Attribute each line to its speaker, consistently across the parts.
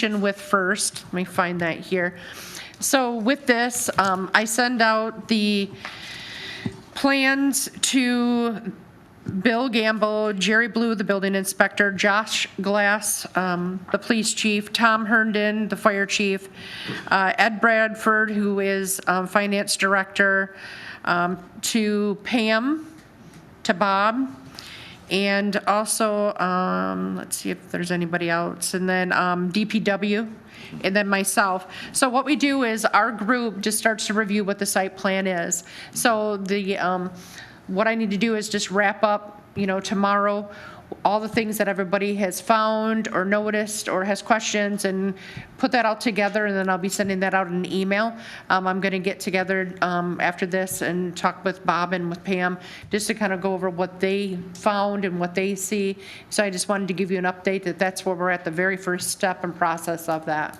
Speaker 1: communication with first. Let me find that here. So with this, um, I send out the plans to Bill Gamble, Jerry Blue, the building inspector, Josh Glass, um, the police chief, Tom Herndon, the fire chief, uh, Ed Bradford, who is um, finance director, um, to Pam, to Bob, and also, um, let's see if there's anybody else, and then, um, DPW, and then myself. So what we do is our group just starts to review what the site plan is. So the, um, what I need to do is just wrap up, you know, tomorrow, all the things that everybody has found or noticed or has questions and put that all together and then I'll be sending that out in an email. Um, I'm going to get together um, after this and talk with Bob and with Pam just to kind of go over what they found and what they see. So I just wanted to give you an update that that's where we're at, the very first step and process of that.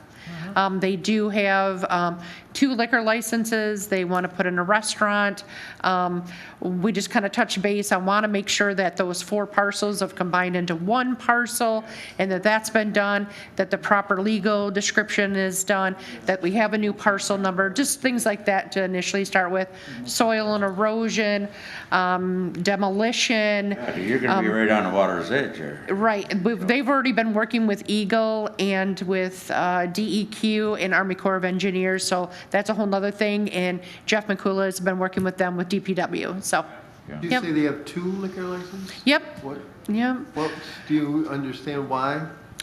Speaker 1: Um, They do have um, two liquor licenses, they want to put in a restaurant. Um, We just kind of touch base, I want to make sure that those four parcels have combined into one parcel, and that that's been done, that the proper legal description is done, that we have a new parcel number, just things like that to initially start with. Soil and erosion, um, demolition,
Speaker 2: You're gonna
Speaker 1: Um,
Speaker 2: be right on the water's edge here.
Speaker 1: Right, and we've- they've already been working with Eagle and with uh, DEQ and Army Corps of Engineers, so that's a whole nother thing, and Jeff McCullough has been working with them with DPW, so,
Speaker 3: Do you
Speaker 1: Yep.
Speaker 3: say they have two liquor licenses?
Speaker 1: yep,
Speaker 3: What,
Speaker 1: yep.
Speaker 3: what, do you understand why?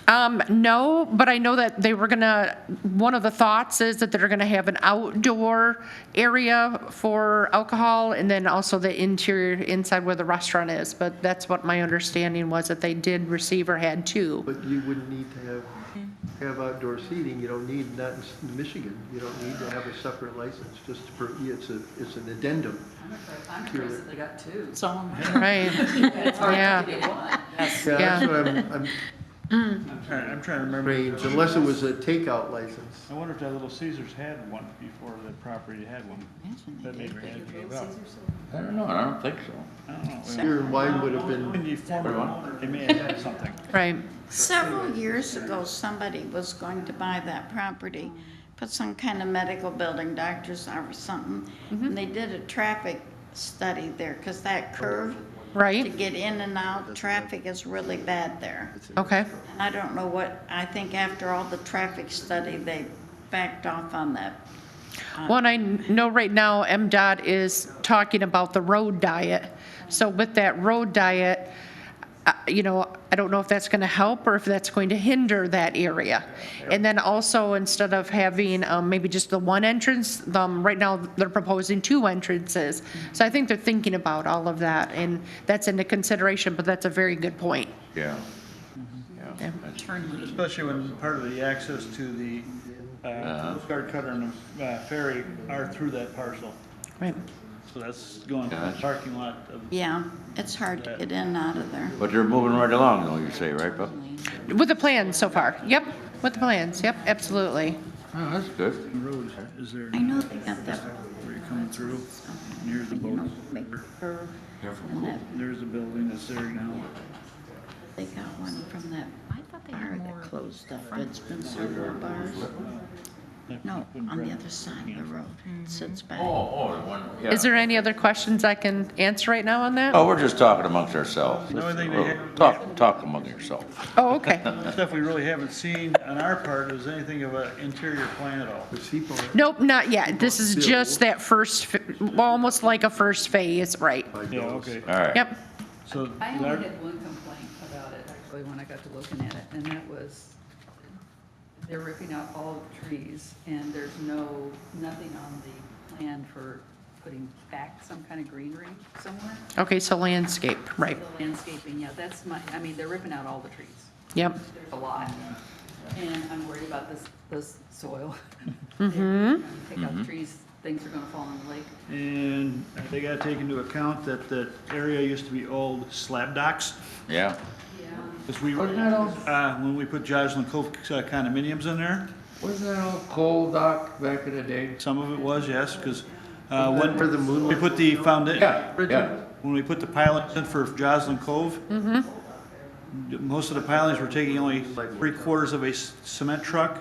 Speaker 1: Um, no, but I know that they were gonna, one of the thoughts is that they're gonna have an outdoor area for alcohol and then also the interior, inside where the restaurant is, but that's what my understanding was, that they did receive or had two.
Speaker 3: But you wouldn't need to have, have outdoor seating, you don't need, not in S- Michigan, you don't need to have a separate license, just for, it's a, it's an addendum.
Speaker 4: I'm impressed that they got two.
Speaker 5: So am I.
Speaker 1: Right,
Speaker 4: It's hard
Speaker 1: Yeah.
Speaker 4: to get one.
Speaker 3: Yeah, that's what I'm, I'm
Speaker 6: I'm trying, I'm trying to remember.
Speaker 3: strange, unless it was a takeout license.
Speaker 6: I wonder if that Little Caesar's had one before the property had one. That maybe had gave up.
Speaker 2: I don't know, I don't think so.
Speaker 6: I don't know.
Speaker 3: Beer and wine would have
Speaker 6: When
Speaker 3: been,
Speaker 6: you form an owner, they may have had something.
Speaker 1: right,
Speaker 5: Several years ago, somebody was going to buy that property, put some kind of medical building, doctor's or something. And they did a traffic study there, because that curve to
Speaker 1: right,
Speaker 5: get in and out, traffic is really bad there.
Speaker 1: okay,
Speaker 5: And I don't know what, I think after all the traffic study, they backed off on that.
Speaker 1: Well, and I know right now MDOT is talking about the road diet. So with that road diet, uh, you know, I don't know if that's going to help or if that's going to hinder that area. And then also, instead of having um, maybe just the one entrance, um, right now, they're proposing two entrances. So I think they're thinking about all of that, and that's into consideration, but that's a very good point.
Speaker 2: Yeah.
Speaker 1: Yeah.
Speaker 2: Yeah. that's-
Speaker 6: Especially when part of the access to the, uh, Coast Guard cutter and the uh, ferry are through that parcel.
Speaker 1: Right.
Speaker 6: So that's going from the
Speaker 2: Gotcha.
Speaker 6: parking lot of.
Speaker 5: Yeah, it's hard to get in and out of there.
Speaker 2: But they're moving right along, though, you say, right, Bob?
Speaker 1: With the plans so far, yep, with the plans, yep, absolutely.
Speaker 2: Oh, that's good.
Speaker 6: The road, is there,
Speaker 5: I know they got that,
Speaker 6: where you're coming through, near the boat.
Speaker 5: make curve, and that
Speaker 6: There's a building that's there now.
Speaker 5: They got one from that bar that closed up, that's been several bars. No, on the other side of the road, It sits back.
Speaker 2: oh, the one.
Speaker 1: Is there any other questions I can answer right now on that?
Speaker 2: Oh, we're just talking amongst ourselves.
Speaker 6: No, I think they have-
Speaker 2: Talk, talk among yourself.
Speaker 1: Oh, okay.
Speaker 6: Stuff we really haven't seen on our part is anything of an interior plan at all.
Speaker 3: the people,
Speaker 1: Nope, not yet. This is just that first, fa- well, almost like a first phase, right?
Speaker 6: Yeah, okay,
Speaker 2: All right.
Speaker 1: Yep,
Speaker 6: so.
Speaker 4: I only had one complaint about it, actually, when I got to looking at it, and that was they're ripping out all the trees, and there's no, nothing on the plan for putting back some kind of greenery somewhere.
Speaker 1: okay, so landscape, right,
Speaker 4: The Landscaping, yeah, that's my, I mean, they're ripping out all the trees.
Speaker 1: yep,
Speaker 4: There's a lot, and I'm worried about this, this soil. Mm-hmm. Take out the trees, things are gonna fall in the lake.
Speaker 6: And they gotta take into account that the area used to be old slab docks.
Speaker 2: Yeah.
Speaker 6: Because we, uh, when we put Joslyn Cove uh, condominiums in there,
Speaker 7: Wasn't that all coal dock back in the day?
Speaker 6: some of it was, yes, because, uh,
Speaker 3: Isn't that where the
Speaker 6: when
Speaker 3: moon-
Speaker 6: we put the foundation,
Speaker 7: Yeah, yeah.
Speaker 6: when we put the pilot in for Joslyn Cove, most of the pilings were taking only three quarters of a s- cement truck